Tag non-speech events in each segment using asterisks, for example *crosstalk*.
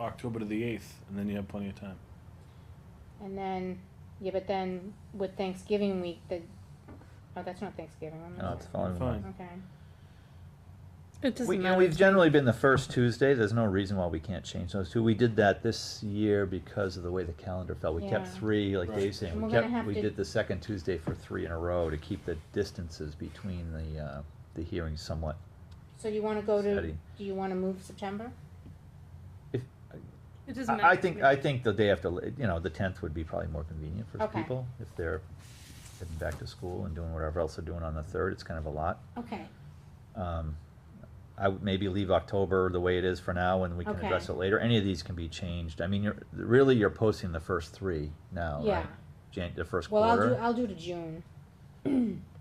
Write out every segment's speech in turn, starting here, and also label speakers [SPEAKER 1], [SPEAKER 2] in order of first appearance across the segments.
[SPEAKER 1] October to the eighth, and then you have plenty of time.
[SPEAKER 2] And then, yeah, but then with Thanksgiving week, the, oh, that's not Thanksgiving, I'm
[SPEAKER 3] No,
[SPEAKER 2] not,
[SPEAKER 3] Oh, it's following.
[SPEAKER 1] Fine.
[SPEAKER 2] okay.
[SPEAKER 4] It doesn't
[SPEAKER 3] We, you know,
[SPEAKER 4] matter
[SPEAKER 3] we've
[SPEAKER 4] to
[SPEAKER 3] generally
[SPEAKER 4] me.
[SPEAKER 3] been the first Tuesday. There's no reason why we can't change those two. We did that this year because of the way the calendar fell. We kept
[SPEAKER 2] Yeah.
[SPEAKER 3] three, like
[SPEAKER 1] Right.
[SPEAKER 3] Dave's saying.
[SPEAKER 2] And
[SPEAKER 3] We
[SPEAKER 2] we're gonna
[SPEAKER 3] kept,
[SPEAKER 2] have
[SPEAKER 3] we
[SPEAKER 2] to-
[SPEAKER 3] did the second Tuesday for three in a row to keep the distances between the, uh, the hearings somewhat.
[SPEAKER 2] So you wanna go to,
[SPEAKER 3] Steady.
[SPEAKER 2] do you wanna move September?
[SPEAKER 3] If,
[SPEAKER 4] It doesn't matter.
[SPEAKER 3] I, I
[SPEAKER 4] to
[SPEAKER 3] think,
[SPEAKER 4] me.
[SPEAKER 3] I think the day after, you know, the tenth would be probably more convenient for
[SPEAKER 2] Okay.
[SPEAKER 3] people if they're heading back to school and doing whatever else they're doing on the third. It's kind of a lot.
[SPEAKER 2] Okay,
[SPEAKER 3] Um, I would maybe leave October the way it is for now, and we can address
[SPEAKER 2] Okay.
[SPEAKER 3] it later. Any of these can be changed. I mean, you're, really, you're posting the first three now,
[SPEAKER 2] yeah,
[SPEAKER 3] right? Jan, the first
[SPEAKER 2] well, I'll do,
[SPEAKER 3] quarter.
[SPEAKER 2] I'll do to June,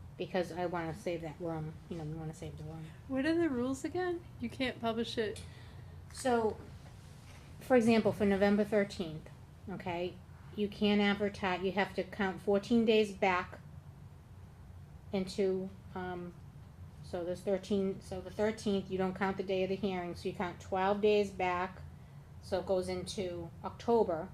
[SPEAKER 2] *clears throat* because I wanna save that room, you know, we wanna save the room.
[SPEAKER 4] What are the rules again? You can't publish it.
[SPEAKER 2] So, for example, for November thirteenth, okay, you can't advertise, you have to count fourteen days back into, um, so there's thirteen, so the thirteenth, you don't count the day of the hearing, so you count twelve days back, so it goes into October,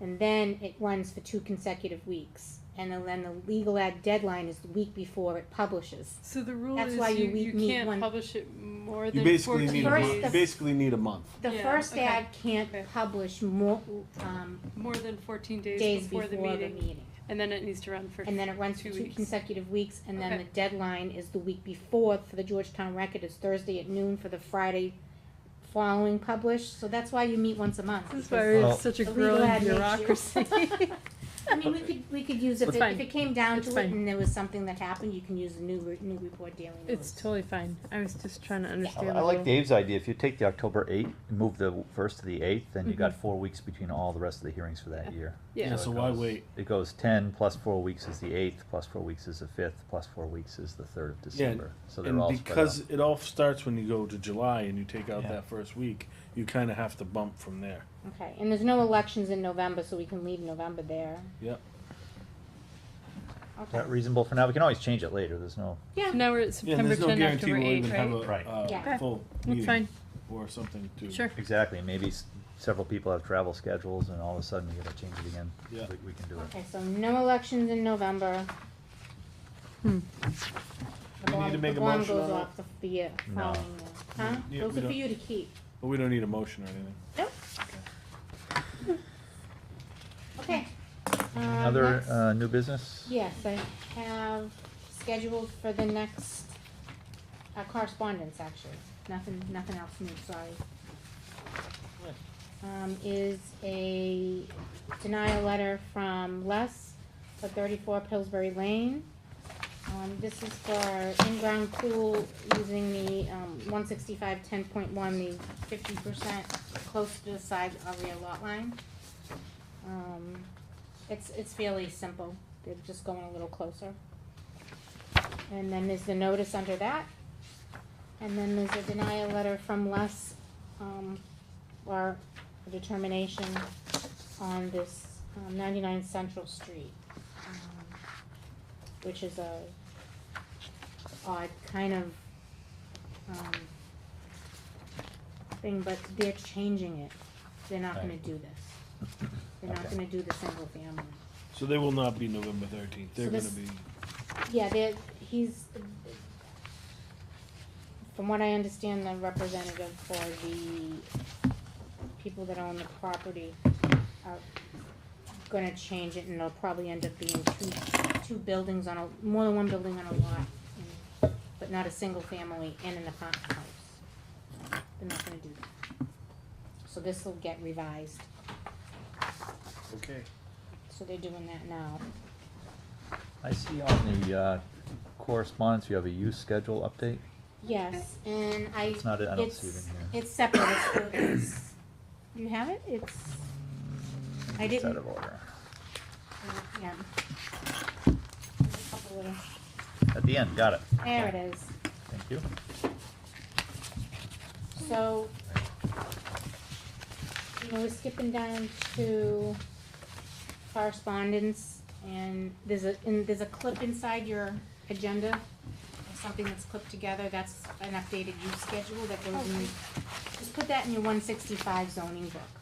[SPEAKER 2] and then it runs for two consecutive weeks, and then- then the legal ad deadline is the week before it publishes.
[SPEAKER 4] So the rule
[SPEAKER 2] That's
[SPEAKER 4] is
[SPEAKER 2] why
[SPEAKER 4] you,
[SPEAKER 2] you- we
[SPEAKER 4] you
[SPEAKER 2] need
[SPEAKER 4] can't
[SPEAKER 2] one-
[SPEAKER 4] publish it more
[SPEAKER 1] You
[SPEAKER 4] than
[SPEAKER 1] basically
[SPEAKER 4] 14
[SPEAKER 1] need a
[SPEAKER 2] First
[SPEAKER 1] month.
[SPEAKER 2] the-
[SPEAKER 1] You
[SPEAKER 4] days.
[SPEAKER 1] basically need a month.
[SPEAKER 2] The
[SPEAKER 4] Yeah,
[SPEAKER 2] first
[SPEAKER 4] okay.
[SPEAKER 2] ad can't
[SPEAKER 4] Okay.
[SPEAKER 2] publish more, um,
[SPEAKER 4] more than 14 days,
[SPEAKER 2] days
[SPEAKER 4] before, the meeting,
[SPEAKER 2] meeting.
[SPEAKER 4] and then it needs to run for
[SPEAKER 2] And then it runs for
[SPEAKER 4] two
[SPEAKER 2] two
[SPEAKER 4] weeks.
[SPEAKER 2] consecutive weeks, and then
[SPEAKER 4] Okay.
[SPEAKER 2] the deadline is the week before for the Georgetown Record, it's Thursday at noon for the Friday following published, so that's why you meet once a month.
[SPEAKER 4] This is why
[SPEAKER 2] because
[SPEAKER 4] we
[SPEAKER 3] Well-
[SPEAKER 4] have such a
[SPEAKER 2] the legal
[SPEAKER 4] growing
[SPEAKER 2] ad makes you-
[SPEAKER 4] bureaucracy.
[SPEAKER 2] *laughs* I mean, we could, we could use, if
[SPEAKER 4] It's
[SPEAKER 2] it,
[SPEAKER 4] fine.
[SPEAKER 2] if it came down
[SPEAKER 4] It's
[SPEAKER 2] to it
[SPEAKER 4] fine.
[SPEAKER 2] and there was something that happened, you can use the new, re- new report daily news.
[SPEAKER 4] it's totally fine. I was just trying to
[SPEAKER 3] I
[SPEAKER 4] understand.
[SPEAKER 3] I
[SPEAKER 4] the
[SPEAKER 3] like
[SPEAKER 4] rule.
[SPEAKER 3] Dave's idea. If you take the October eighth, move the first to the eighth, then you got
[SPEAKER 2] Mm-hmm.
[SPEAKER 3] four weeks between all the rest of the hearings for that year.
[SPEAKER 4] Yeah.
[SPEAKER 1] So
[SPEAKER 3] it
[SPEAKER 1] why
[SPEAKER 3] goes-
[SPEAKER 1] wait?
[SPEAKER 3] It goes ten, plus four weeks is the eighth, plus four weeks is the fifth, plus four weeks is the third of December. So they're
[SPEAKER 1] And
[SPEAKER 3] all spread out.
[SPEAKER 1] because it all starts when you go to July and you take out
[SPEAKER 3] Yeah.
[SPEAKER 1] that first week, you kind of have to bump from there.
[SPEAKER 2] Okay, and there's no elections in November, so we can leave November there.
[SPEAKER 1] Yep.
[SPEAKER 3] Is
[SPEAKER 2] Okay,
[SPEAKER 3] that reasonable for now? We can always change it later. There's no.
[SPEAKER 2] yeah,
[SPEAKER 4] Now we're at
[SPEAKER 1] Yeah, and
[SPEAKER 4] September
[SPEAKER 1] there's no
[SPEAKER 4] 10,
[SPEAKER 1] guarantee
[SPEAKER 4] October
[SPEAKER 1] we'll
[SPEAKER 4] 8,
[SPEAKER 1] even
[SPEAKER 4] right?
[SPEAKER 1] have a
[SPEAKER 3] Right.
[SPEAKER 1] uh,
[SPEAKER 2] Yeah.
[SPEAKER 4] Okay.
[SPEAKER 1] full
[SPEAKER 4] That's
[SPEAKER 1] meeting
[SPEAKER 4] fine.
[SPEAKER 1] or something to.
[SPEAKER 4] Sure.
[SPEAKER 3] Exactly, maybe s- several people have travel schedules and all of a sudden you gotta change it again.
[SPEAKER 1] Yeah.
[SPEAKER 3] We, we can do it.
[SPEAKER 2] okay, so no elections in November. The
[SPEAKER 4] Hmm.
[SPEAKER 1] We need to
[SPEAKER 2] bond-
[SPEAKER 1] make
[SPEAKER 2] the
[SPEAKER 1] a
[SPEAKER 2] bond
[SPEAKER 1] motion
[SPEAKER 2] goes
[SPEAKER 1] on
[SPEAKER 2] off the, the year
[SPEAKER 3] No.
[SPEAKER 2] following year.
[SPEAKER 1] Yeah,
[SPEAKER 2] Huh? Those
[SPEAKER 1] we
[SPEAKER 2] are for
[SPEAKER 1] don't-
[SPEAKER 2] you to keep.
[SPEAKER 1] But we don't need a motion or anything.
[SPEAKER 2] Nope. Okay. Um,
[SPEAKER 3] Another,
[SPEAKER 2] next-
[SPEAKER 3] uh, new business? *coughs*
[SPEAKER 2] Yes, I have scheduled for the next, uh, correspondence, actually. Nothing, nothing else new, sorry. Um, is a denial letter from Les for thirty-four Pillsbury Lane. Um, this is for in-ground pool using the, um, one sixty-five, ten point one, the fifty percent close to the side of your lot line. Um, it's, it's fairly simple, they're just going a little closer. And then there's the notice under that. And then there's a denial letter from Les, um, or a determination on this, um, ninety-nine Central Street. um, Which is a odd kind of, um, thing, but they're changing it. They're not gonna
[SPEAKER 3] Right.
[SPEAKER 2] do this. They're not
[SPEAKER 3] Okay.
[SPEAKER 2] gonna do the single family.
[SPEAKER 1] So they will not be November thirteenth. They're
[SPEAKER 2] So
[SPEAKER 1] going
[SPEAKER 2] this-
[SPEAKER 1] to be.
[SPEAKER 2] Yeah, they're, he's, from what I understand, the representative for the people that own the property are gonna change it, and it'll probably end up being two, two buildings on a, more than one building on a lot, and- but not a single family and an apartment house. They're not gonna do that. So this will get revised,
[SPEAKER 1] Okay.
[SPEAKER 2] so they're doing that now.
[SPEAKER 3] I see on the, uh, correspondence, you have a use schedule update.
[SPEAKER 2] Yes, and I.
[SPEAKER 3] It's not- I don't see it in here.
[SPEAKER 2] It's separate, it's, the- it's, *coughs* you have it, it's, I
[SPEAKER 3] It's
[SPEAKER 2] didn't-
[SPEAKER 3] Out of order.
[SPEAKER 2] yeah. There's a couple little-
[SPEAKER 3] At the end, got it.
[SPEAKER 2] There it is,
[SPEAKER 3] Thank you.
[SPEAKER 2] so, you know, we're skipping down to correspondence, and there's a, and there's a clip inside your agenda of something that's clipped together, that's an updated use schedule that goes in, just put that in your one sixty-five zoning book.